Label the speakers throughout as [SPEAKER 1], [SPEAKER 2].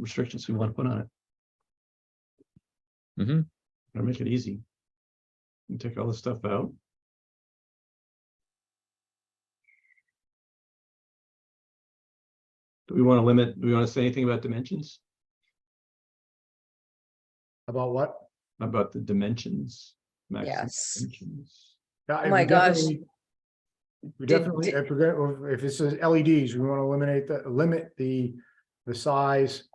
[SPEAKER 1] restrictions we want to put on it. Mm-hmm.
[SPEAKER 2] Mhm.
[SPEAKER 1] Or make it easy. And Take all this stuff out. Do we want to limit, do we want to say anything about dimensions,
[SPEAKER 3] About what?
[SPEAKER 1] about the dimensions? maximum
[SPEAKER 4] Yes.
[SPEAKER 1] dimensions?
[SPEAKER 3] Yeah,
[SPEAKER 4] Oh
[SPEAKER 3] we
[SPEAKER 4] my gosh.
[SPEAKER 3] definitely- We
[SPEAKER 4] Did-
[SPEAKER 3] definitely,
[SPEAKER 4] did-
[SPEAKER 3] if we're gonna, if it says LEDs, E we want to eliminate the, limit the, the size,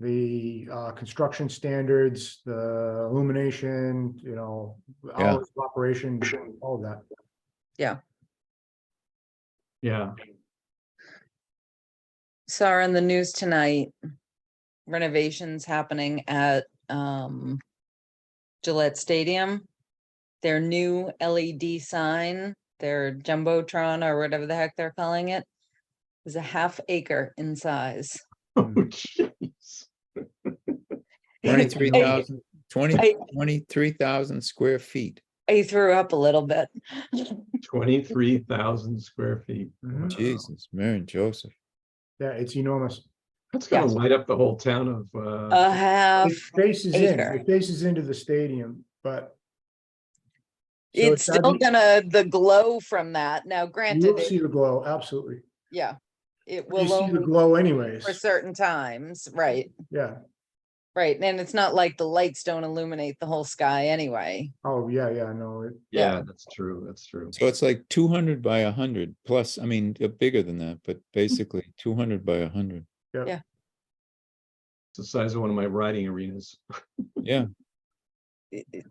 [SPEAKER 3] the uh, construction standards, the illumination, you know,
[SPEAKER 2] Yeah.
[SPEAKER 3] hours of operation, all of that.
[SPEAKER 1] Yeah,
[SPEAKER 4] saw in the news tonight, renovations happening at um Gillette Stadium. Their new LED sign, their jumbotron or whatever the heck they're calling it, is a half acre in size.
[SPEAKER 1] oh jeez,
[SPEAKER 2] Twenty-three thousand, twenty,
[SPEAKER 4] I-
[SPEAKER 2] twenty-three thousand square feet.
[SPEAKER 4] I threw up a little bit.
[SPEAKER 1] twenty-three thousand square feet.
[SPEAKER 3] Mhm.
[SPEAKER 2] Jesus, Mary and Joseph.
[SPEAKER 3] Yeah, it's enormous.
[SPEAKER 1] That's gonna
[SPEAKER 4] Yeah.
[SPEAKER 1] light up the whole town of,
[SPEAKER 3] Oh,
[SPEAKER 4] A
[SPEAKER 1] uh,
[SPEAKER 4] half,
[SPEAKER 3] It faces in,
[SPEAKER 4] acre.
[SPEAKER 3] it faces into the stadium, but so it
[SPEAKER 4] it's still
[SPEAKER 3] doesn't-
[SPEAKER 4] gonna, the glow from that. Now
[SPEAKER 3] You'll
[SPEAKER 4] granted, it-
[SPEAKER 3] see the glow, absolutely.
[SPEAKER 4] yeah, it
[SPEAKER 3] You
[SPEAKER 4] will
[SPEAKER 3] see the
[SPEAKER 4] only
[SPEAKER 3] glow anyways,
[SPEAKER 4] for certain times, right?
[SPEAKER 3] yeah.
[SPEAKER 4] Right, and it's not like the lights don't illuminate the whole sky anyway.
[SPEAKER 3] Oh, yeah, yeah, no, it-
[SPEAKER 1] yeah, that's true, that's true.
[SPEAKER 2] So it's like two hundred by a hundred plus, I mean, uh, bigger than that, but basically two hundred by a hundred.
[SPEAKER 1] It's the size of one of my riding arenas.
[SPEAKER 2] Yeah,
[SPEAKER 4] It- it-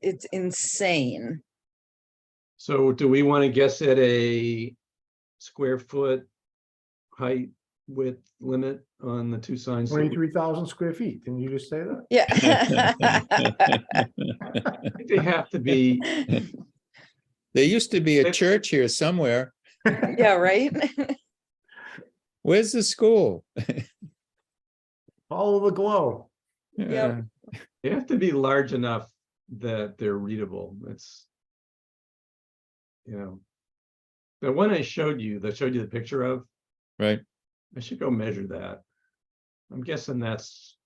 [SPEAKER 4] It's insane.
[SPEAKER 1] So do we want to guess at a square foot height width limit on the two signs? that we-
[SPEAKER 3] twenty-three thousand square feet. Didn't you just say that?
[SPEAKER 4] Yeah.
[SPEAKER 1] I think They have to be,
[SPEAKER 2] there used to be a
[SPEAKER 1] It-
[SPEAKER 2] church here somewhere.
[SPEAKER 4] Yeah, right?
[SPEAKER 2] Where's the school?
[SPEAKER 3] Follow the glow.
[SPEAKER 2] Yeah.
[SPEAKER 1] they have to be large enough that they're readable. It's you know, the one I showed you, that showed you the picture of,
[SPEAKER 2] Right,
[SPEAKER 1] I should go measure that. I'm guessing that's,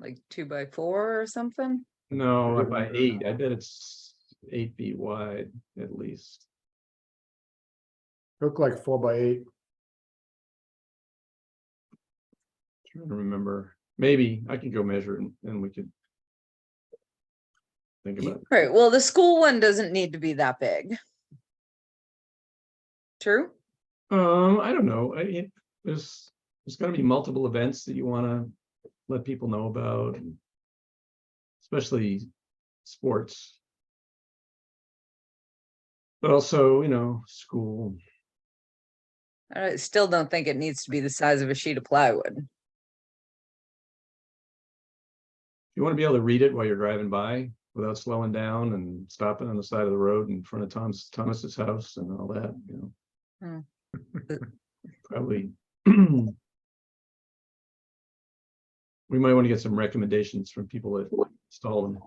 [SPEAKER 4] Like two by four or something?
[SPEAKER 1] no, by eight, I bet it's eight feet wide at least.
[SPEAKER 3] Look like four by eight.
[SPEAKER 1] Trying to remember, maybe I can go measure it and- and we could. Think
[SPEAKER 2] Ye-
[SPEAKER 1] about, it.
[SPEAKER 4] Right, well, the school one doesn't need to be that big. True?
[SPEAKER 1] um, I don't know, I, it- there's, there's gonna be multiple events that you wanna let people know about. and Especially sports. But also, you know, school,
[SPEAKER 4] I still don't think it needs to be the size of a sheet of plywood.
[SPEAKER 1] you wanna be able to read it while you're driving by without slowing down and stopping on the side of the road in front of Tom's, Thomas's house and all that, you know. probably. We might want to get some recommendations from people that install them.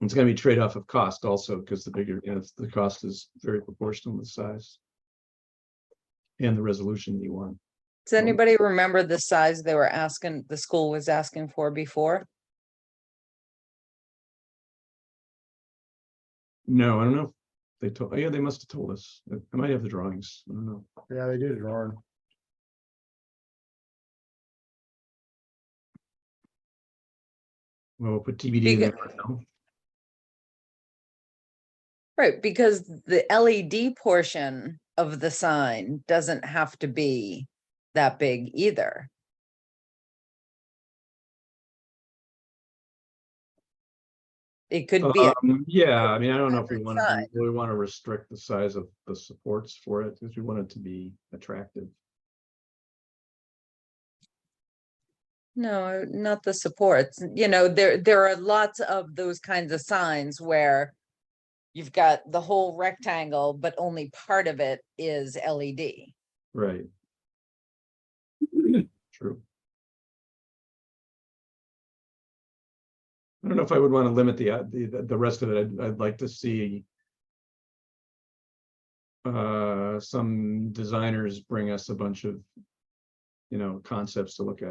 [SPEAKER 1] It's gonna be trade-off of cost also, because the bigger, you know, the cost is very proportional with size. And the resolution you want.
[SPEAKER 4] Does anybody remember the size they were asking, the school was asking for before?
[SPEAKER 1] No, I don't know. if They told, oh yeah, they must have told us. I I might have the drawings. I don't know.
[SPEAKER 3] Yeah, they did it wrong.
[SPEAKER 1] Well, we'll put TBD. in there
[SPEAKER 4] Because-
[SPEAKER 1] for now.
[SPEAKER 4] Right, because the LED portion of the sign doesn't have to be that big either. It could be, a-
[SPEAKER 1] Um, Yeah, I mean, I don't know if we
[SPEAKER 4] average
[SPEAKER 1] want to,
[SPEAKER 4] size.
[SPEAKER 1] we want to restrict the size of the supports for it because we want it to be attractive.
[SPEAKER 4] no, not the supports, you know, there, there are lots of those kinds of signs where you've got the whole rectangle, but only part of it is E LED.
[SPEAKER 1] Right. True. I don't know if I would want to limit the, uh, the, the- the rest of it. I'd, I'd like to see uh, some designers bring us a bunch of, you know, concepts to look at.